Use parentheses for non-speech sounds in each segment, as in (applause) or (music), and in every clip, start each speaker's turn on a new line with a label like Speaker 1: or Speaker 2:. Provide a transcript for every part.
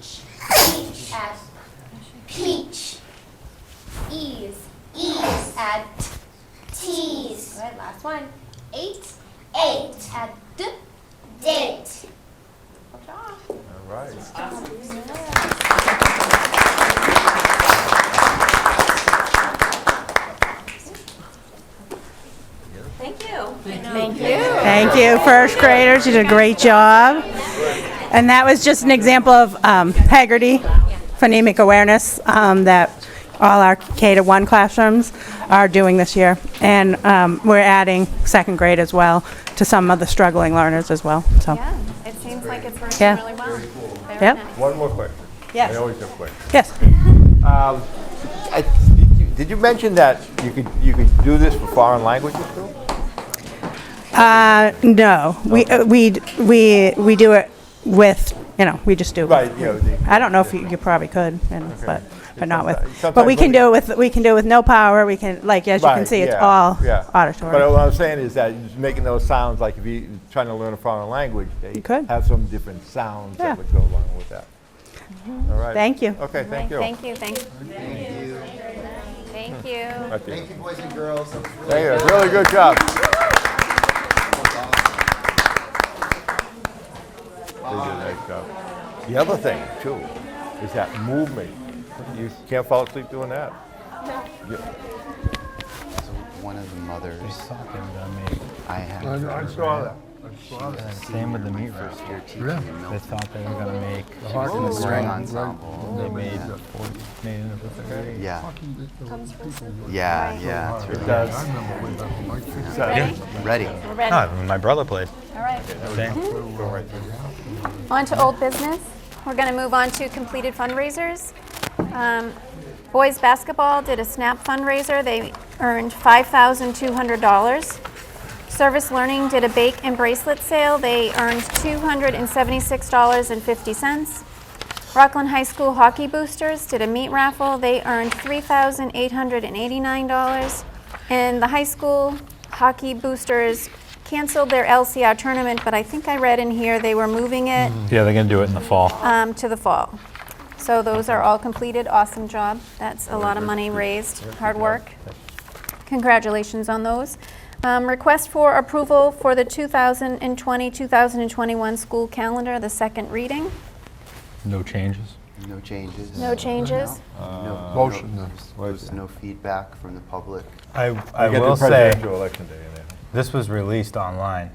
Speaker 1: Peach. Add peach. Ease. Ease. Add tease. All right, last one. Eight. Eight. Add d. Date. Good job.
Speaker 2: All right.
Speaker 3: Thank you.
Speaker 4: Thank you, first graders, you did a great job. And that was just an example of um, Hagerty phonemic awareness um, that all our K to 1 classrooms are doing this year. And um, we're adding second grade as well to some of the struggling learners as well, so.
Speaker 3: Yeah, it seems like it's working
Speaker 4: Yeah.
Speaker 3: really well. Very
Speaker 4: Yep.
Speaker 3: nice.
Speaker 2: One more question.
Speaker 4: Yes.
Speaker 2: I always have questions.
Speaker 4: Yes,
Speaker 2: Um, I- Did you mention that you could, you could do this for foreign languages too?
Speaker 4: Uh, no, we, uh, we, d- we we do it with, you know, we just do it with
Speaker 2: Right, you know, the-
Speaker 4: I don't know if you, you probably could, you know, but, but not with,
Speaker 2: Sometimes-
Speaker 4: but we can do it
Speaker 2: sometimes
Speaker 4: with, we can do it with no power, we can, like, as you can
Speaker 2: Right,
Speaker 4: see, it's
Speaker 2: yeah,
Speaker 4: all
Speaker 2: yeah. But
Speaker 4: auditory.
Speaker 2: what I'm saying is that just making those sounds, like if you're trying to learn a foreign language, they
Speaker 4: You could.
Speaker 2: have some different sounds
Speaker 4: Yeah. Mm-hmm.
Speaker 2: that would go along with that. All right.
Speaker 4: Thank you.
Speaker 2: Okay, thank you.
Speaker 3: Thank you, thank you. Thank you.
Speaker 2: Thank
Speaker 5: Thank you, boys and girls. That was really
Speaker 2: you. Really good job. They did a nice job. The other thing too is that movement. You can't fall asleep doing that.
Speaker 5: So one of the mothers
Speaker 6: Talking about me.
Speaker 5: I had
Speaker 7: I saw that. I saw that.
Speaker 6: Same with the meat wrap.
Speaker 5: first year teaching
Speaker 7: Really?
Speaker 5: in
Speaker 6: They
Speaker 5: Milton.
Speaker 6: thought they were gonna make.
Speaker 5: was in the string ensemble.
Speaker 6: They made forty, made it a fifth grade.
Speaker 5: Yeah,
Speaker 7: Comes from
Speaker 5: yeah, yeah. it's really-
Speaker 7: I remember way back in my kids.
Speaker 3: Ready?
Speaker 5: Ready?
Speaker 3: We're ready. All
Speaker 6: No, my brother played.
Speaker 3: right.
Speaker 6: Same.
Speaker 3: On to old business. We're going to move on to completed fundraisers. Um, Boys basketball did a SNAP fundraiser. They earned $5,200. Service Learning did a bake and bracelet sale. They earned $276.50. Rockland High School Hockey Boosters did a meat raffle. They earned $3,889. And the high school hockey boosters canceled their LCR tournament, but I think I read in here they were moving it
Speaker 6: Yeah, they're gonna do it in the fall.
Speaker 3: um, to the fall. So those are all completed. Awesome job. That's a lot of money raised, hard work. Congratulations on those. Um, Request for approval for the 2020-2021 school calendar, the second reading.
Speaker 6: No changes.
Speaker 5: No changes?
Speaker 3: No changes.
Speaker 5: No-
Speaker 7: Uh, Motion
Speaker 5: no-
Speaker 7: then.
Speaker 5: There's no feedback from the public.
Speaker 6: I, I
Speaker 2: You get the
Speaker 6: will say,
Speaker 2: presidential election day in there.
Speaker 6: this was released online.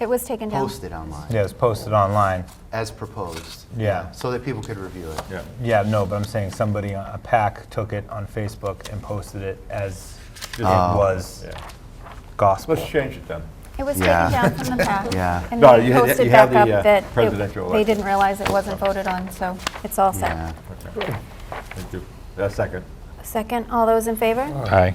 Speaker 3: It was taken down.
Speaker 5: Posted online,
Speaker 6: Yeah, it's posted online.
Speaker 5: as proposed.
Speaker 6: Yeah.
Speaker 5: So that people could review it.
Speaker 2: Yeah.
Speaker 6: Yeah, no, but I'm saying somebody, uh, a pack took it on Facebook and posted it as it was
Speaker 2: Ah. Yeah.
Speaker 6: gospel.
Speaker 2: Let's change it then.
Speaker 3: It was taken
Speaker 5: Yeah.
Speaker 3: down
Speaker 5: (laughs)
Speaker 3: from the pack.
Speaker 5: Yeah.
Speaker 3: And
Speaker 2: No,
Speaker 3: then
Speaker 2: you
Speaker 3: it
Speaker 2: had-
Speaker 3: posted
Speaker 2: you had
Speaker 3: back
Speaker 2: the, uh,
Speaker 3: up that
Speaker 2: presidential
Speaker 3: it- they
Speaker 2: election.
Speaker 3: didn't realize it wasn't voted on, so it's all
Speaker 5: Yeah.
Speaker 3: set.
Speaker 2: Thank you. That's second.
Speaker 3: Second, all those in favor?
Speaker 6: Aye.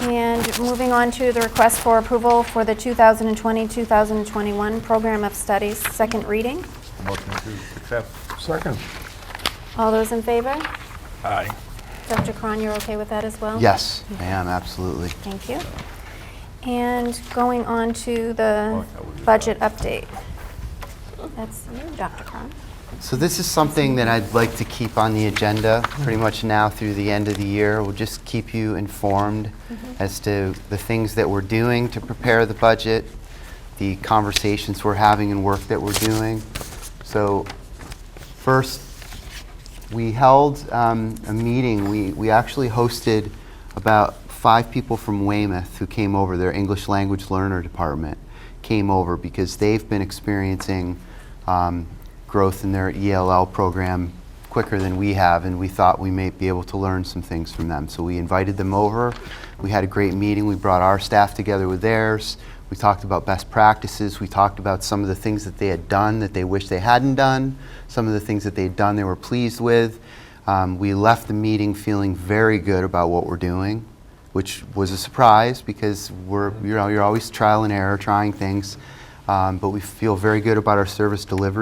Speaker 3: And moving on to the request for approval for the 2020-2021 Program of Studies, second reading.
Speaker 2: Motion to accept.
Speaker 7: Second.
Speaker 3: All those in favor?
Speaker 6: Aye.
Speaker 3: Dr. Cron, you're okay with that as well?
Speaker 5: Yes, I am, absolutely.
Speaker 3: Thank you. And going on to the budget update. That's you, Dr. Cron.
Speaker 5: So this is something that I'd like to keep on the agenda pretty much now through the end of the year. We'll just keep you informed as to the things that we're doing to prepare the budget, the conversations we're having and work that we're doing. So first, we held um, a meeting. We, we actually hosted about five people from Weymouth who came over, their English language learner department came over because they've been experiencing um, growth in their ELL program quicker than we have, and we thought we may be able to learn some things from them. So we invited them over. We had a great meeting. We brought our staff together with theirs. We talked about best practices. We talked about some of the things that they had done that they wish they hadn't done, some of the things that they'd done they were pleased with. Um, we left the meeting feeling very good about what we're doing, which was a surprise because we're, you know, you're always trial and error trying things. Um, but we feel very good about our service delivery.